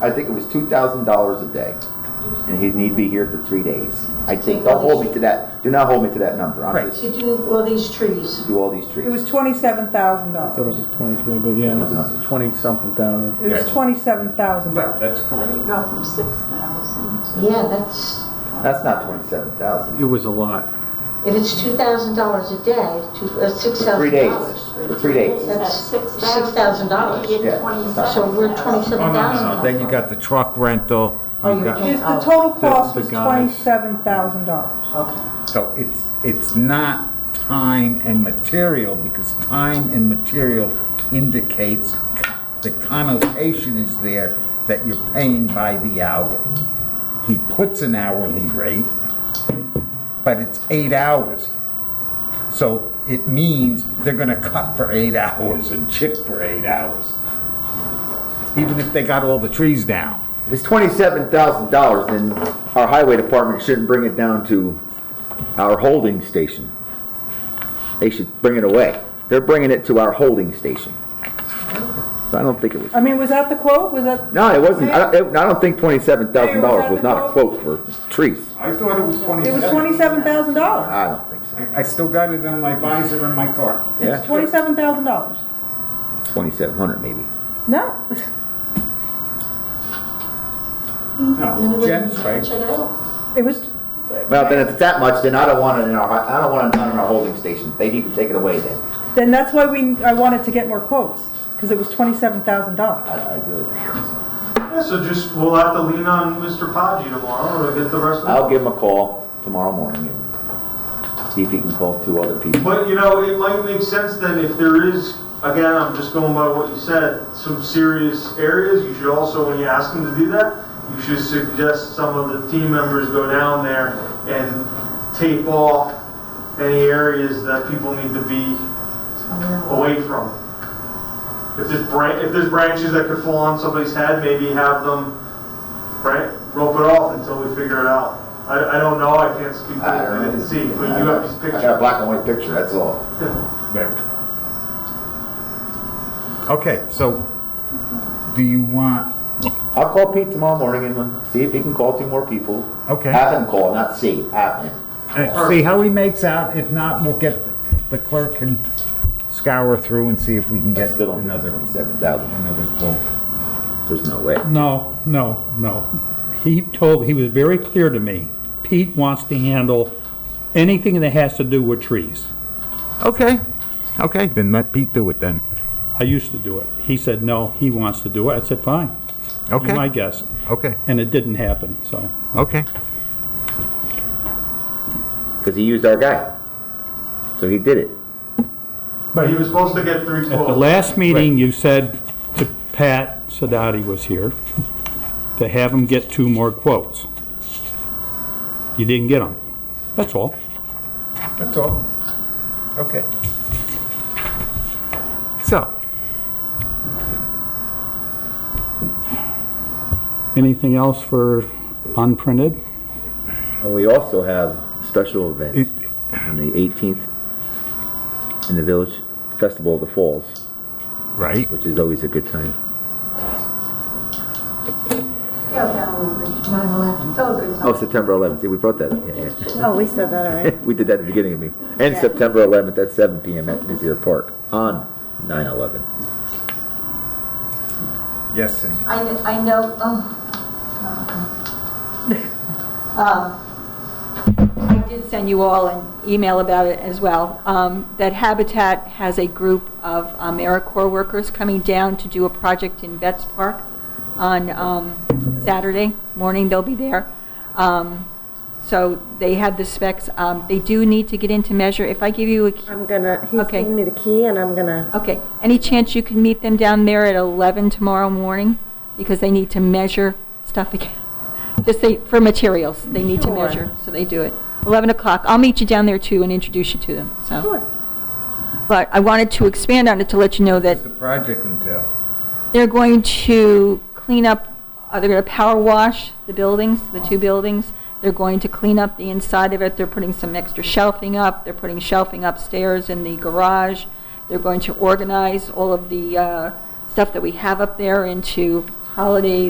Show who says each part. Speaker 1: I think it was two thousand dollars a day, and he'd need to be here for three days. I think, don't hold me to that, do not hold me to that number, I'm
Speaker 2: Right.
Speaker 1: just,
Speaker 3: to do all these trees.
Speaker 1: do all these
Speaker 4: It was
Speaker 1: trees.
Speaker 4: twenty-seven thousand
Speaker 5: I thought it
Speaker 4: dollars.
Speaker 5: was twenty-three, but yeah, it's twenty-something thousand.
Speaker 4: It was
Speaker 2: Yeah.
Speaker 4: twenty-seven thousand
Speaker 2: Right,
Speaker 4: dollars.
Speaker 2: that's correct.
Speaker 6: You go from six thousand to.
Speaker 3: Yeah, that's,
Speaker 1: That's not twenty-seven thousand,
Speaker 5: It was a lot.
Speaker 3: and it's two thousand dollars a day, to, uh, six
Speaker 1: for three
Speaker 3: thousand
Speaker 1: days,
Speaker 3: dollars.
Speaker 1: for three days.
Speaker 3: That's
Speaker 6: six
Speaker 3: $6,000.
Speaker 1: Yeah.
Speaker 3: So we're twenty-seven
Speaker 2: Oh, no, Oh, no,
Speaker 3: thousand.
Speaker 2: no, then you got the truck rental, you
Speaker 1: Oh,
Speaker 2: got,
Speaker 4: His, the total cost
Speaker 5: The- the
Speaker 4: was
Speaker 5: guys.
Speaker 4: twenty-seven thousand dollars.
Speaker 3: Okay,
Speaker 2: so it's, it's not time and material, because time and material indicates, the connotation is there that you're paying by the hour. He puts an hourly rate, but it's eight hours. So it means they're gonna cut for eight hours and chip for eight hours. Even if they got all the trees down.
Speaker 1: If it's twenty-seven thousand dollars, then our highway department shouldn't bring it down to our holding station. They should bring it away, they're bringing it to our holding station. So I don't think it was,
Speaker 4: I mean, was that the quote? Was that?
Speaker 1: no, it wasn't, I don't, I don't think twenty-seven thousand dollars was not a quote for trees.
Speaker 2: I thought it was
Speaker 4: It was twenty-seven thousand dollars.
Speaker 1: I don't think so.
Speaker 2: I I still got it on my visor in my car.
Speaker 1: Yeah.
Speaker 4: It's twenty-seven thousand dollars.
Speaker 1: Twenty-seven hundred maybe.
Speaker 4: No,
Speaker 2: No, Jen's right.
Speaker 3: check it out.
Speaker 4: it was,
Speaker 1: Well, then if it's that much, then I don't want it in our, I don't want it in our holding station. They need to take it away then.
Speaker 4: then that's why we, I wanted to get more quotes, because it was twenty-seven thousand dollars.
Speaker 1: I, I really don't think so.
Speaker 7: Yeah, so just, we'll have to lean on Mr. Podgy tomorrow to get the rest of it.
Speaker 1: I'll give him a call tomorrow morning and see if he can call two other people.
Speaker 7: But, you know, it might make sense then if there is, again, I'm just going by what you said, some serious areas, you should also, when you ask them to do that, you should suggest some of the team members go down there and tape off any areas that people need to be away from. If there's bran, if there's branches that could fall on somebody's head, maybe have them, right, rope it off until we figure it out. I, I don't know, I can't speak to it, I didn't see, but you have
Speaker 1: I got a
Speaker 7: these pictures.
Speaker 1: black and white picture, that's all.
Speaker 2: Okay, so do you want,
Speaker 1: I'll call Pete tomorrow morning and see if he can call two more people.
Speaker 2: Okay.
Speaker 1: Have him call, not see, have him.
Speaker 2: uh, see how he makes out? If not, we'll get, the clerk can scour through and see if we can get
Speaker 1: Still don't think
Speaker 2: another,
Speaker 1: it's twenty-seven thousand.
Speaker 2: another quote.
Speaker 1: There's no way.
Speaker 8: No, no, no. He told, he was very clear to me, Pete wants to handle anything that has to do with trees.
Speaker 2: Okay, okay, then let Pete do it then.
Speaker 8: I used to do it. He said, no, he wants to do it. I said, fine. You're
Speaker 2: Okay.
Speaker 8: My guest.
Speaker 2: Okay,
Speaker 8: And it didn't happen, so.
Speaker 2: okay.
Speaker 1: Cause he used our guy. So he did it.
Speaker 7: But he was supposed to get three
Speaker 8: At the
Speaker 7: quotes.
Speaker 8: last meeting, you said to Pat Sadati was here, to have him get two more quotes. You didn't get them. That's all.
Speaker 2: That's all. Okay. So,
Speaker 8: Anything else for unprinted?
Speaker 1: And we also have special event
Speaker 2: It-
Speaker 1: on the eighteenth in the village, Festival of the Falls.
Speaker 2: right,
Speaker 1: which is always a good time.
Speaker 3: Nine eleven.
Speaker 1: Oh, September 11th. See, we brought that up. Yeah,
Speaker 4: Oh, we said that already.
Speaker 1: yeah. we did that at the beginning of me. And September 11th at 7 p.m. at Mizzier Park on 9 11.
Speaker 2: yes, Cindy.
Speaker 6: I, kn- I know, oh. Uh-huh. Um, I did send you all an email about it as well, um, that Habitat has a group of AmeriCorps workers coming down to do a project in Betts Park on um, Saturday morning, they'll be there. Um, So they have the specs, Um, they do need to get into measure, if I give you a key-
Speaker 9: I'm gonna, he's
Speaker 6: Okay.
Speaker 9: giving me the key and I'm gonna,
Speaker 6: Okay, any chance you can meet them down there at 11 tomorrow morning? Because they need to measure stuff again. Just they, for materials, they need to
Speaker 9: Sure.
Speaker 6: measure, so they do it. 11 o'clock, I'll meet you down there too and introduce you to them, so.
Speaker 9: Sure.
Speaker 6: But I wanted to expand on it to let you know that
Speaker 2: The project until.
Speaker 6: they're going to clean up, uh, they're going to power wash the buildings, the two buildings. They're going to clean up the inside of it. They're putting some extra shelving up. They're putting shelving upstairs in the garage. They're going to organize all of the uh, stuff that we have up there into holiday